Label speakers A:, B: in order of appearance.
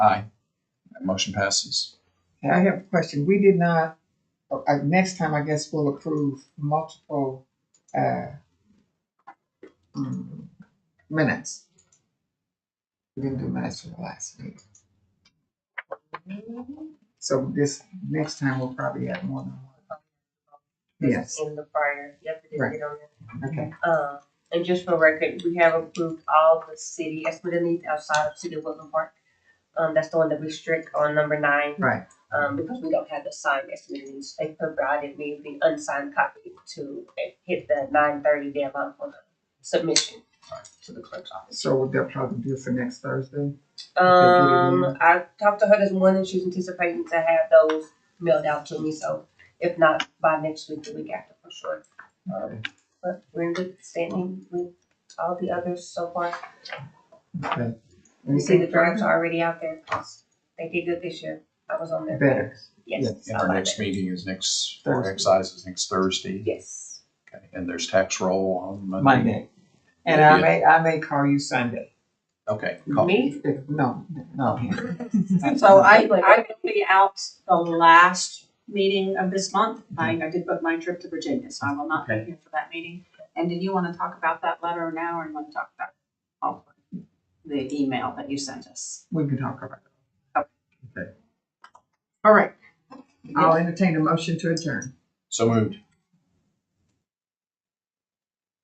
A: Aye. That motion passes.
B: And I have a question. We did not, uh, uh, next time I guess we'll approve multiple, uh, mm, minutes. We didn't do minutes for the last meeting.
C: Mm-hmm.
B: So this, next time we'll probably have more than one. Yes,
C: In the prior, yep, it did get on
B: okay,
C: there. Uh, and just for record, we have approved all the city expenditures outside of City of Woodland Park. Um, that's the one that we strict on number nine,
B: right,
C: um, because we don't have the signed expenditures. They provided me the unsigned copy to hit the nine thirty deadline for the submission to the clerk's office.
B: so what they'll probably do for next Thursday.
C: Um, I talked to her this morning. She's anticipating to have those mailed out to me. So if not by next week, the week after for sure. Um, but we're in good standing with all the others so far.
B: Okay.
C: You see, the
B: Anything
C: drafts are already out there. 'cause They did good this year. I was on there.
B: Better,
C: Yes.
A: And
C: I
A: our
C: like
A: next
C: that.
A: meeting is next, for
B: Thursday.
A: excise is next Thursday.
C: Yes.
A: Okay, And there's tax roll on Monday.
B: Monday. And I may, I may call you Sunday.
A: Okay, call-
C: Me?
B: If- No, no.
D: So I, I will be out the last meeting of this month. I, I did book my trip to Virginia, so I will not be here for that meeting. And did you want to talk about that letter now or you want to talk about all the email that you sent us?
B: We can talk about it. Okay. All right. I'll entertain a motion to adjourn.
A: so moved.